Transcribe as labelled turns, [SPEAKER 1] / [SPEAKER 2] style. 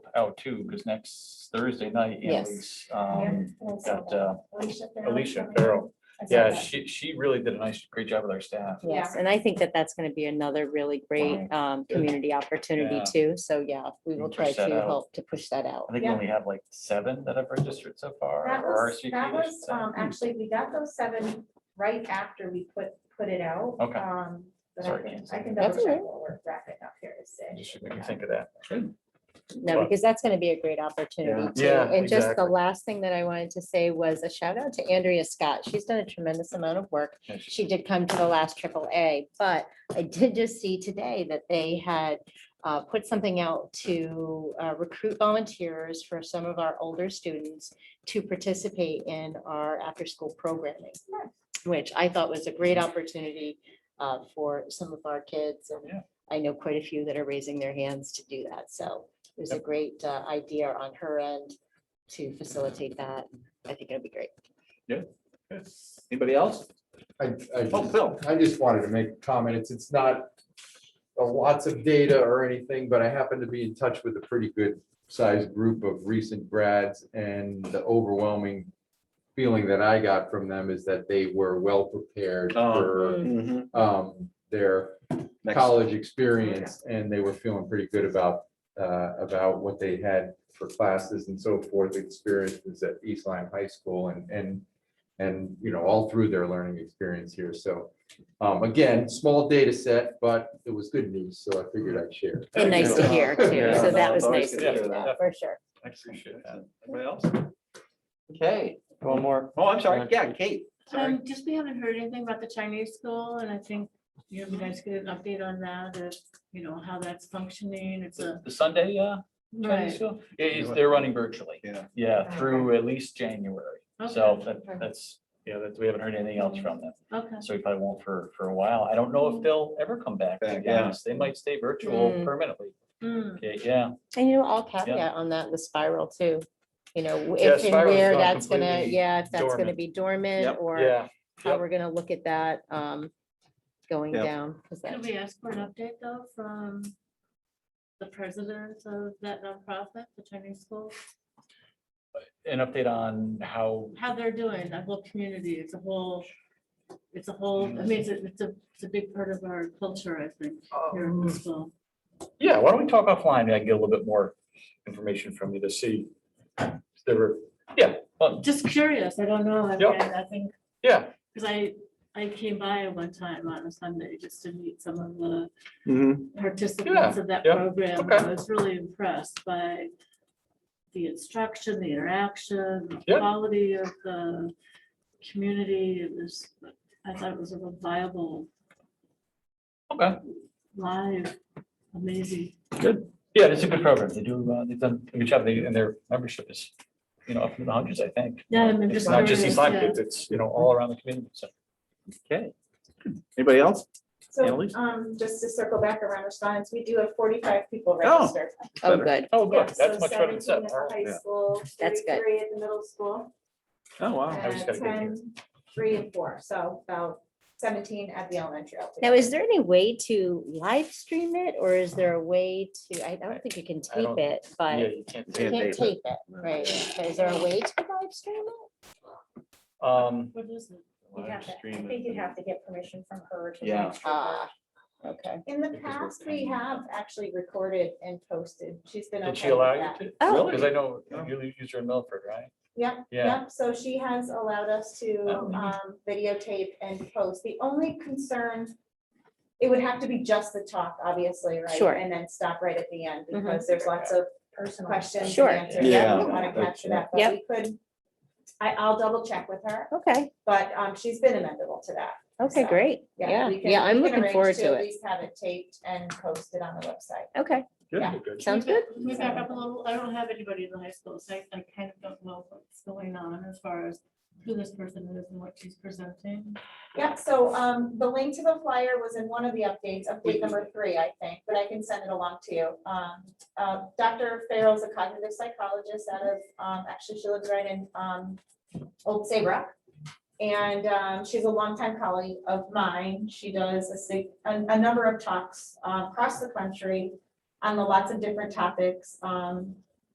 [SPEAKER 1] out too, because next Thursday night, Annalise, um, got uh, Alicia Farrell. Yeah, she, she really did a nice, great job with our staff.
[SPEAKER 2] Yes, and I think that that's gonna be another really great, um, community opportunity
[SPEAKER 1] Yeah.
[SPEAKER 2] too. So yeah, we will
[SPEAKER 1] Push
[SPEAKER 2] try to
[SPEAKER 1] that out.
[SPEAKER 2] help to push that out.
[SPEAKER 1] I think we
[SPEAKER 3] Yeah.
[SPEAKER 1] only have like seven that have registered so far.
[SPEAKER 3] That
[SPEAKER 1] or
[SPEAKER 3] was,
[SPEAKER 1] RSVP'd, I
[SPEAKER 3] that
[SPEAKER 1] should
[SPEAKER 3] was,
[SPEAKER 1] say.
[SPEAKER 3] um, actually, we got those seven right after we put, put it out.
[SPEAKER 1] Okay.
[SPEAKER 3] Um, But I
[SPEAKER 1] Sorry,
[SPEAKER 3] can,
[SPEAKER 1] Kansas.
[SPEAKER 3] I can double
[SPEAKER 2] That's
[SPEAKER 3] check
[SPEAKER 2] all
[SPEAKER 3] what we're wrapping up here to say.
[SPEAKER 1] Just should make me think of that.
[SPEAKER 2] No,
[SPEAKER 1] But-
[SPEAKER 2] because that's gonna be a great opportunity
[SPEAKER 1] Yeah.
[SPEAKER 2] too.
[SPEAKER 1] Yeah,
[SPEAKER 2] And just the
[SPEAKER 1] exactly.
[SPEAKER 2] last thing that I wanted to say was a shout out to Andrea Scott. She's done a tremendous amount of work.
[SPEAKER 1] Yeah, she-
[SPEAKER 2] She did come to the last triple A, but I did just see today that they had uh, put something out to uh, recruit volunteers for some of our older students to participate in our after-school programming,
[SPEAKER 3] Nice.
[SPEAKER 2] which I thought was a great opportunity uh, for some of our kids.
[SPEAKER 1] Yeah.
[SPEAKER 2] And I know quite a few that are raising their hands to do that. So it was a
[SPEAKER 1] Yep.
[SPEAKER 2] great uh, idea on her end to facilitate that. I think it'll be great.
[SPEAKER 1] Anybody else?
[SPEAKER 4] I,
[SPEAKER 1] Oh,
[SPEAKER 4] I,
[SPEAKER 1] Phil.
[SPEAKER 4] I just wanted to make a comment. It's, it's not a lots of data or anything, but I happen to be in touch with a pretty good sized group of recent grads and the overwhelming feeling that I got from them is that they were well prepared
[SPEAKER 1] Oh.
[SPEAKER 4] for, um, their college experience and they were feeling pretty good about, uh, about what they had for classes and so forth, experiences at East Lyme High School and, and, and, you know, all through their learning experience here. So, um, again, small data set, but it was good news. So I figured I'd share.
[SPEAKER 2] And Mm. nice to hear too.
[SPEAKER 1] Yeah.
[SPEAKER 2] So that was
[SPEAKER 1] Yeah.
[SPEAKER 2] nice to
[SPEAKER 1] Yeah.
[SPEAKER 2] hear, yeah, for sure.
[SPEAKER 1] I appreciate that. Anybody else? Okay. One more. Oh, I'm
[SPEAKER 5] sorry.
[SPEAKER 1] Yeah, Kate. Sorry.
[SPEAKER 6] Um, just we haven't heard anything about the Chinese school and I think, you know, you guys get an update on that, if, you know, how that's functioning, it's
[SPEAKER 1] The
[SPEAKER 6] a.
[SPEAKER 1] the Sunday, uh, Chinese
[SPEAKER 6] Right,
[SPEAKER 1] school? It is, they're running virtually.
[SPEAKER 5] Yeah.
[SPEAKER 1] Yeah, through at least January. So
[SPEAKER 6] okay,
[SPEAKER 1] that- that's, yeah, that's, we haven't heard anything else from them.
[SPEAKER 6] okay,
[SPEAKER 1] So we probably won't for, for a while. I don't know if they'll ever come back. to
[SPEAKER 5] Back,
[SPEAKER 1] be
[SPEAKER 5] yeah.
[SPEAKER 1] honest. They might stay virtual
[SPEAKER 2] Mm.
[SPEAKER 1] permanently.
[SPEAKER 6] Hmm,
[SPEAKER 1] Okay, Yeah,
[SPEAKER 2] And you know, I'll caveat on that, the spiral too, you know, w-
[SPEAKER 1] Yeah,
[SPEAKER 2] if and
[SPEAKER 1] spiral's
[SPEAKER 2] where
[SPEAKER 1] gone
[SPEAKER 2] that's gonna,
[SPEAKER 1] completely
[SPEAKER 2] yeah, if that's gonna
[SPEAKER 1] dormant.
[SPEAKER 2] be dormant
[SPEAKER 1] Yep.
[SPEAKER 2] or
[SPEAKER 1] yeah.
[SPEAKER 2] how
[SPEAKER 1] yep.
[SPEAKER 2] we're gonna look at that, um, going
[SPEAKER 5] Yep.
[SPEAKER 2] down. 'cause
[SPEAKER 6] can
[SPEAKER 2] that-
[SPEAKER 6] we ask for an update though from the president of that nonprofit, the Chinese school,
[SPEAKER 1] An update on how,
[SPEAKER 6] how they're doing, that whole community, it's a whole, it's a whole, I mean, it's a, it's a, it's a big part of our culture, I think, here in
[SPEAKER 1] Oh.
[SPEAKER 6] the school.
[SPEAKER 1] yeah, why don't we talk offline? and I can get a little bit more information from you to see. if There were, yeah, well,
[SPEAKER 6] Just curious, I don't know, I mean,
[SPEAKER 1] Yep.
[SPEAKER 6] I think
[SPEAKER 1] yeah,
[SPEAKER 6] Cause I, I came by one time on a Sunday just to meet some of the
[SPEAKER 1] Mm-hmm.
[SPEAKER 6] participants of that
[SPEAKER 1] yeah,
[SPEAKER 6] program. and
[SPEAKER 1] okay.
[SPEAKER 6] I was really impressed by the instruction, the interaction, the
[SPEAKER 1] Yeah.
[SPEAKER 6] quality of the community. It was, I thought it was a real viable,
[SPEAKER 1] okay.
[SPEAKER 6] live, amazing.
[SPEAKER 1] Yeah, it's a good program. They do, uh, they've done a good job. They, and their membership is, you know, up in the hundreds, I think.
[SPEAKER 6] Yeah, I'm
[SPEAKER 1] It's
[SPEAKER 6] just
[SPEAKER 1] not just
[SPEAKER 6] curious,
[SPEAKER 1] these five
[SPEAKER 6] yeah.
[SPEAKER 1] kids, it's, you know, all around the community, so. Okay. Anybody else?
[SPEAKER 3] So,
[SPEAKER 1] Annalise?
[SPEAKER 3] um, just to circle back around response, we do have forty-five people registered.
[SPEAKER 2] Oh,
[SPEAKER 1] Better.
[SPEAKER 2] good.
[SPEAKER 1] Oh,
[SPEAKER 3] Yeah,
[SPEAKER 1] good.
[SPEAKER 3] so
[SPEAKER 1] That's much better than
[SPEAKER 3] 17
[SPEAKER 1] seven.
[SPEAKER 3] at the
[SPEAKER 1] All right.
[SPEAKER 3] High school,
[SPEAKER 2] That's good.
[SPEAKER 3] thirty-three at the middle school,
[SPEAKER 1] Oh, wow. I just gotta
[SPEAKER 3] and
[SPEAKER 1] get here.
[SPEAKER 3] 10, three and four, so about seventeen at the elementary.
[SPEAKER 2] Now, is there any way to live stream it or is there a way to, I don't think you can
[SPEAKER 1] I don't-
[SPEAKER 2] tape it,
[SPEAKER 1] Yeah,
[SPEAKER 2] but you
[SPEAKER 1] you can't.
[SPEAKER 5] Can't
[SPEAKER 2] can't
[SPEAKER 5] tape
[SPEAKER 2] tape it, right? So Is there a way to live stream it?
[SPEAKER 1] Um,
[SPEAKER 6] What is it?
[SPEAKER 3] You'd have to- I think you'd have to get permission from her. to
[SPEAKER 1] Yeah.
[SPEAKER 3] register her.
[SPEAKER 2] Ah, okay.
[SPEAKER 3] In the
[SPEAKER 1] Because we're-
[SPEAKER 3] past, we have actually recorded and posted. She's been.
[SPEAKER 1] did she
[SPEAKER 3] okay with
[SPEAKER 1] allow
[SPEAKER 3] that.
[SPEAKER 1] you to?
[SPEAKER 2] Oh.
[SPEAKER 1] Because I know you use her in Milford, right?
[SPEAKER 3] Yep,
[SPEAKER 1] Yeah.
[SPEAKER 3] yep. So she has allowed us to
[SPEAKER 1] Oh, neat.
[SPEAKER 3] um, videotape and post. The only concern, it would have to be just the talk, obviously, right?
[SPEAKER 2] Sure.
[SPEAKER 3] And then stop right at the end
[SPEAKER 2] Mhm.
[SPEAKER 3] because there's lots of questions
[SPEAKER 2] Sure.
[SPEAKER 3] and answers
[SPEAKER 5] Yeah.
[SPEAKER 3] that we want to
[SPEAKER 5] Yeah.
[SPEAKER 3] capture that. But
[SPEAKER 2] Yep.
[SPEAKER 3] we could, I, I'll double check with her,
[SPEAKER 2] Okay,
[SPEAKER 3] but um, she's been amenable to that.
[SPEAKER 2] okay,
[SPEAKER 3] So,
[SPEAKER 2] great.
[SPEAKER 3] Yeah,
[SPEAKER 2] Yeah,
[SPEAKER 3] we can-
[SPEAKER 2] yeah, I'm
[SPEAKER 3] we can
[SPEAKER 2] looking
[SPEAKER 3] arrange
[SPEAKER 2] forward
[SPEAKER 3] At
[SPEAKER 2] to it.
[SPEAKER 3] least have it taped and posted on the website.
[SPEAKER 2] Okay,
[SPEAKER 3] Yeah.
[SPEAKER 1] Good.
[SPEAKER 2] sounds
[SPEAKER 6] Can we
[SPEAKER 2] good.
[SPEAKER 6] back- can we back up a little? I don't have anybody in the high school, so I, I kind of don't know what's going on as far as who this person is and what she's presenting.
[SPEAKER 3] Yep, so um, the link to the flyer was in one of the updates, update number three, I think, but I can send it along to you. Um, uh, Dr. Farrell's a cognitive psychologist out of, um, actually, she lives right in um, Old Saybrook. And um, she's a longtime colleague of mine. She does a sig- a, a number of talks uh, across the country on the lots of different topics. Um,